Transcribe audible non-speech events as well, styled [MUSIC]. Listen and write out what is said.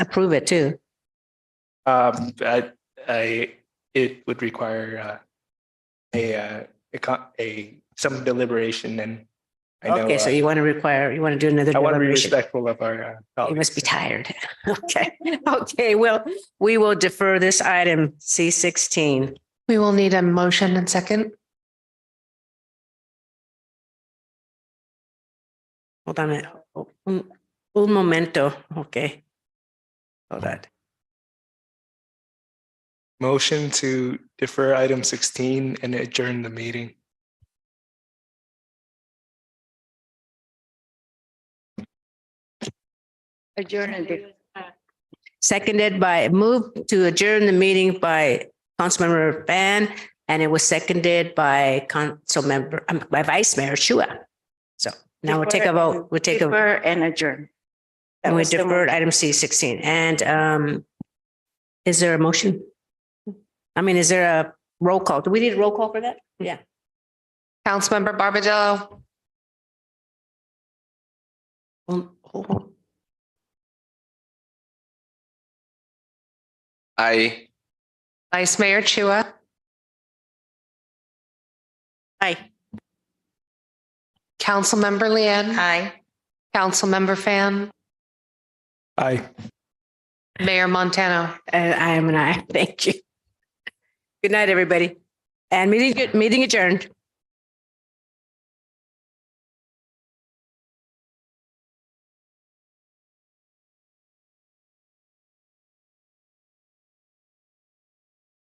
approve it too. Um, I, I, it would require, uh, a, uh, a, co- a, some deliberation and I know, Okay, so uh, you want to require, you want to do another I want to be deliberation. respectful of our, uh, You colleagues. must be tired. [LAUGHS] Okay, okay, well, we will defer this item C sixteen. We will need a motion and second. Hold on a minute. Un un momento, okay. Hold on. Motion to defer item sixteen and adjourn the meeting. Seconded by, moved to adjourn the meeting by Councilmember Ban, and it was seconded by Councilmember, um, by Vice Mayor Shua. So now we'll take a vote, we'll take a, Defer and adjourn. and we deferred item C sixteen, and, um, is there a motion? I mean, is there a roll call? Do we need a roll call for that? Yeah. Councilmember Barbadillo, Um, hold on. Aye. Vice Mayor Chua, Aye. Councilmember Leanne, Aye. Councilmember Fan, Aye. Mayor Montano. And [LAUGHS] I am an aye. Thank you. Good night, everybody. And meeting, meeting adjourned.